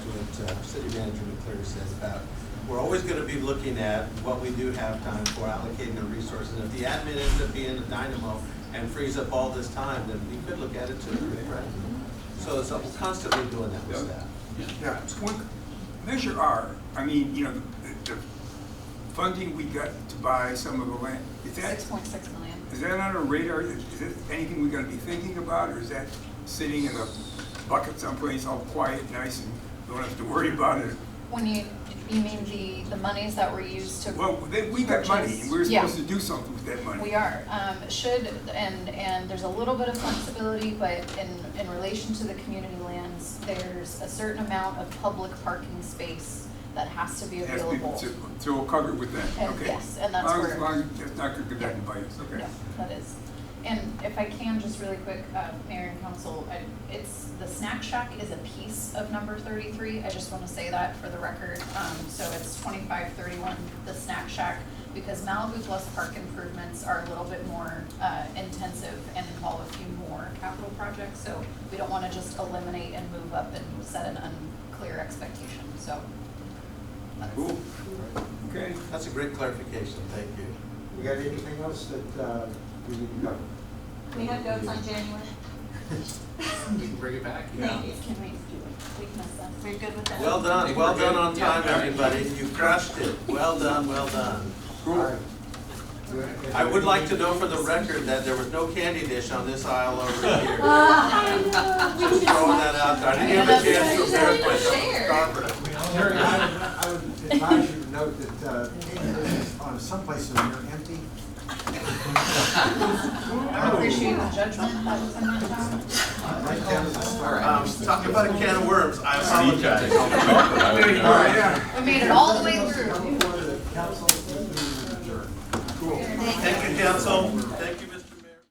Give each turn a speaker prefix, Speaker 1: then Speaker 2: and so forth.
Speaker 1: uh, city manager McClure says about, we're always gonna be looking at what we do have time for allocating the resources. If the admin ends up being a dynamo and frees up all this time, then we could look at it too, right? So it's uh, constantly doing that with
Speaker 2: Yeah.
Speaker 1: staff.
Speaker 3: Yeah, it's one, Measure R, I mean, you know, the, the funding we got to buy some of the land, is that,
Speaker 4: Six point six million.
Speaker 3: is that on our radar? Is it anything we're gonna be thinking about, or is that sitting in a bucket someplace all quiet, nice, and don't have to worry about it?
Speaker 4: When you, you mean the, the monies that were used to.
Speaker 3: Well, they- we got money, and we're
Speaker 4: Yeah.
Speaker 3: supposed to do something with that money.
Speaker 4: We are, um, should, and, and there's a little bit of flexibility, but in, in relation to the community lands, there's a certain amount of public parking space that has to be
Speaker 3: It has to be-
Speaker 4: available.
Speaker 3: So so we'll cover it with that,
Speaker 4: And
Speaker 3: okay?
Speaker 4: yes, and that's
Speaker 3: Long as-
Speaker 4: where-
Speaker 3: long as that's not gonna go back and bite us, okay?
Speaker 4: No, that is. And if I can, just really quick, uh, Mayor and Council, I- it's, the snack shack is a piece of number thirty-three. I just want to say that for the record. Um, So it's twenty-five thirty-one, the snack shack, because Malibu Plus Park improvements are a little bit more uh, intensive and involve a few more capital projects. So we don't want to just eliminate and move up and set an unclear expectation, so. that's-
Speaker 3: Cool, okay.
Speaker 1: That's a great clarification, thank you.
Speaker 5: We got anything else that uh, we need to know?
Speaker 6: We have goats on January.
Speaker 7: We can bring it back.
Speaker 6: Thank you.
Speaker 4: Can we, we can miss that.
Speaker 6: We're good with that.
Speaker 1: Well done, well done on time,
Speaker 7: Yeah.
Speaker 1: everybody. You crushed it. Well done, well done.
Speaker 5: All right. Do you have-
Speaker 1: I would like to know for the record that there was no candy dish on this aisle over here. Just throwing that out there. I didn't have a chance to prepare
Speaker 4: Share.
Speaker 1: myself.
Speaker 5: Terry, I would- I would advise you to note that uh, there's, uh, some places are empty.
Speaker 4: I appreciate the judgment that was in that town.
Speaker 5: Right down to the store.
Speaker 1: Um, talking about a can of worms, I apologize.
Speaker 3: There you go, yeah.
Speaker 4: We made it all the way through.
Speaker 5: Before the council, meeting is adjourned.
Speaker 1: Thank you, council. Thank you, Mr.